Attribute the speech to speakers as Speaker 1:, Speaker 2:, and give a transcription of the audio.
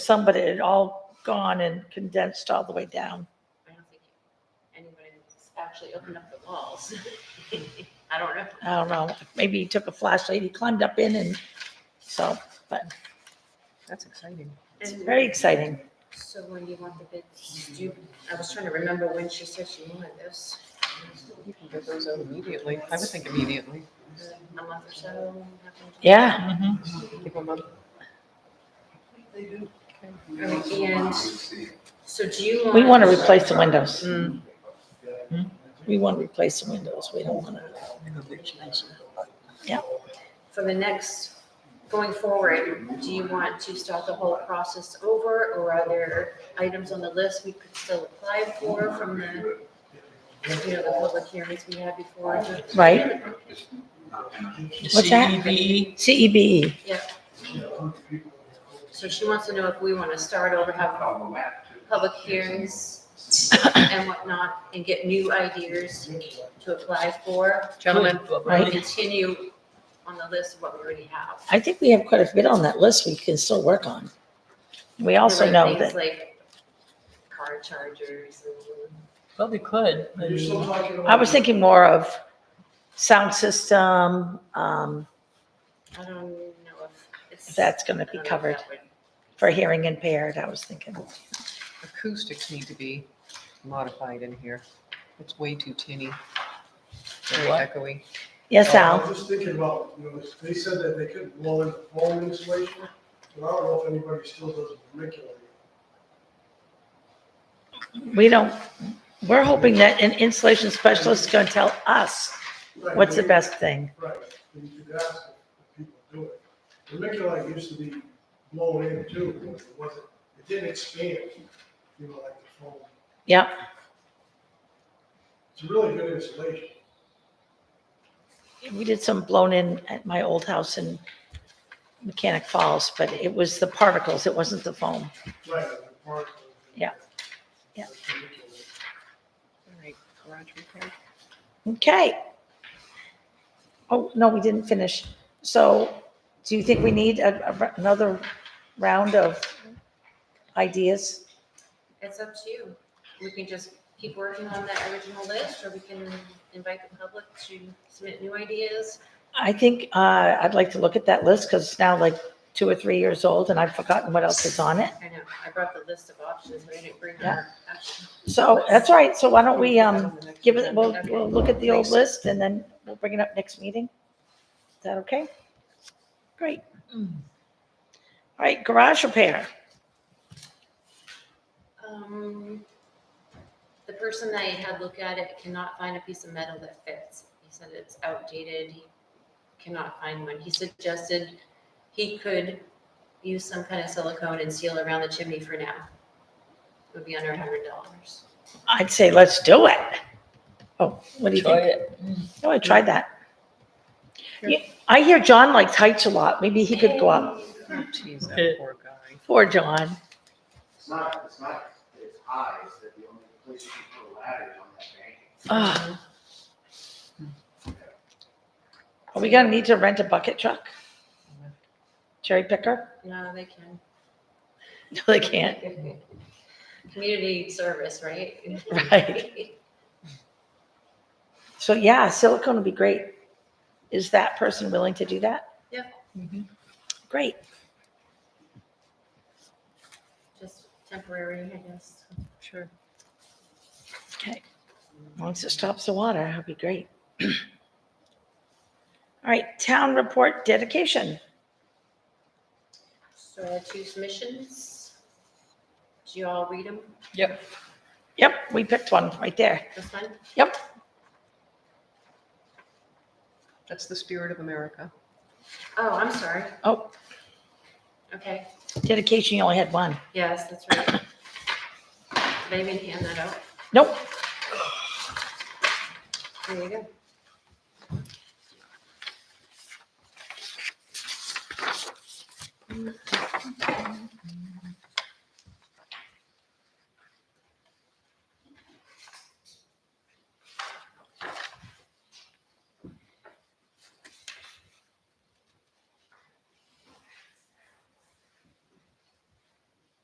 Speaker 1: some, but it had all gone and condensed all the way down.
Speaker 2: I don't think anybody actually opened up the walls. I don't know.
Speaker 1: I don't know, maybe he took a flashlight, he climbed up in and so, but
Speaker 3: That's exciting.
Speaker 1: it's very exciting.
Speaker 2: So when do you want the bids? Do you, I was trying to remember when she said she wanted this,
Speaker 3: You can get those out immediately. I would think immediately.
Speaker 2: a month or so?
Speaker 1: Yeah,
Speaker 3: Mm-hmm. Give them up.
Speaker 2: And so do you want?
Speaker 1: we want to replace the windows.
Speaker 3: Mm.
Speaker 1: We want to replace the windows. We don't want to,
Speaker 2: For the next, going forward, do you want to start the whole process over? Or are there items on the list we could still apply for from the, you know, the public hearings we had before?
Speaker 1: right? What's that? E
Speaker 3: CEV.
Speaker 1: CEBE.
Speaker 2: So she wants to know if we want to start over, have public hearings and whatnot, and get new ideas to apply for,
Speaker 3: Gentlemen.
Speaker 2: or
Speaker 1: Right.
Speaker 2: continue on the list of what we already have.
Speaker 1: I think we have quite a bit on that list we can still work on. We also
Speaker 2: There were
Speaker 1: know
Speaker 2: things
Speaker 1: that,
Speaker 2: Like car chargers and.
Speaker 3: Well, we could. I mean,
Speaker 1: I was thinking more of sound system, um,
Speaker 2: I don't know if it's.
Speaker 1: that's going
Speaker 2: I
Speaker 1: to
Speaker 2: don't
Speaker 1: be
Speaker 2: know if
Speaker 1: covered
Speaker 2: that would-
Speaker 1: for hearing impaired, I was thinking.
Speaker 3: Acoustics need to be modified in here. It's way too tinny. Very
Speaker 4: what?
Speaker 3: echoey.
Speaker 1: Yes,
Speaker 4: I
Speaker 1: Al?
Speaker 4: was just thinking about, you know, they said that they could blow in the foam insulation, but I don't know if anybody still does vermiculite.
Speaker 1: We don't, we're hoping that an insulation specialist is gonna tell us
Speaker 4: Right,
Speaker 1: what's the
Speaker 4: they-
Speaker 1: best thing.
Speaker 4: Right, and you could ask if people do it. Vermiculite used to be blown in too, but it wasn't, it didn't expand, you know, like the foam.
Speaker 1: Yep,
Speaker 4: It's a really good insulation.
Speaker 1: we did some blown in at my old house in Mechanic Falls, but it was the particles, it wasn't the foam.
Speaker 4: Right, and the particles.
Speaker 1: Yeah, yeah.
Speaker 4: That's vermiculite.
Speaker 3: All right, garage repair.
Speaker 1: Okay. Oh, no, we didn't finish. So do you think we need a- a r- another round of ideas?
Speaker 2: It's up to you. We can just keep working on that original list, or we can invite the public to submit new ideas.
Speaker 1: I think uh, I'd like to look at that list because it's now like two or three years old and I've forgotten what else is on it.
Speaker 2: I know, I brought the list of options, but I didn't bring
Speaker 1: Yeah.
Speaker 2: our action.
Speaker 1: So that's all right. So why don't we,
Speaker 3: Put that
Speaker 1: um,
Speaker 3: on the next
Speaker 1: give it,
Speaker 3: agenda.
Speaker 1: we'll, we'll look at the old list and then we'll bring it up next meeting? Is that okay? Great. All right, garage repair.
Speaker 2: Um, the person that I had look at it cannot find a piece of metal that fits. He said it's outdated, he cannot find one. He suggested he could use some kind of silicone and seal around the chimney for now. It would be under a hundred dollars.
Speaker 1: I'd say let's do it. Oh, what do you
Speaker 4: Try
Speaker 1: think? Oh, I tried that. Yeah, I hear John likes heights a lot. Maybe he could go up.
Speaker 3: Jeez, that poor guy.
Speaker 1: Poor John.
Speaker 5: It's not, it's not, it's high, it's that the only place you can put a ladder is on that bank.
Speaker 1: Ugh. Are we gonna need to rent a bucket truck? Cherry picker?
Speaker 2: No, they can.
Speaker 1: No, they can't,
Speaker 2: Community service, right?
Speaker 1: right? So yeah, silicone would be great. Is that person willing to do that?
Speaker 2: Yeah.
Speaker 3: Mhm.
Speaker 1: Great.
Speaker 2: Just temporary, I guess.
Speaker 3: Sure.
Speaker 1: Okay. Once it stops the water, that'd be great. All right, town report dedication.
Speaker 2: So our two submissions. Do you all read them?
Speaker 3: Yep.
Speaker 1: Yep, we picked one right there.
Speaker 2: This one?
Speaker 1: Yep.
Speaker 3: That's the spirit of America.
Speaker 2: Oh, I'm sorry.
Speaker 1: Oh,
Speaker 2: Okay.
Speaker 1: dedication, you only had one.
Speaker 2: Yes, that's right. Did I even hand that out?
Speaker 1: Nope.
Speaker 2: There you go.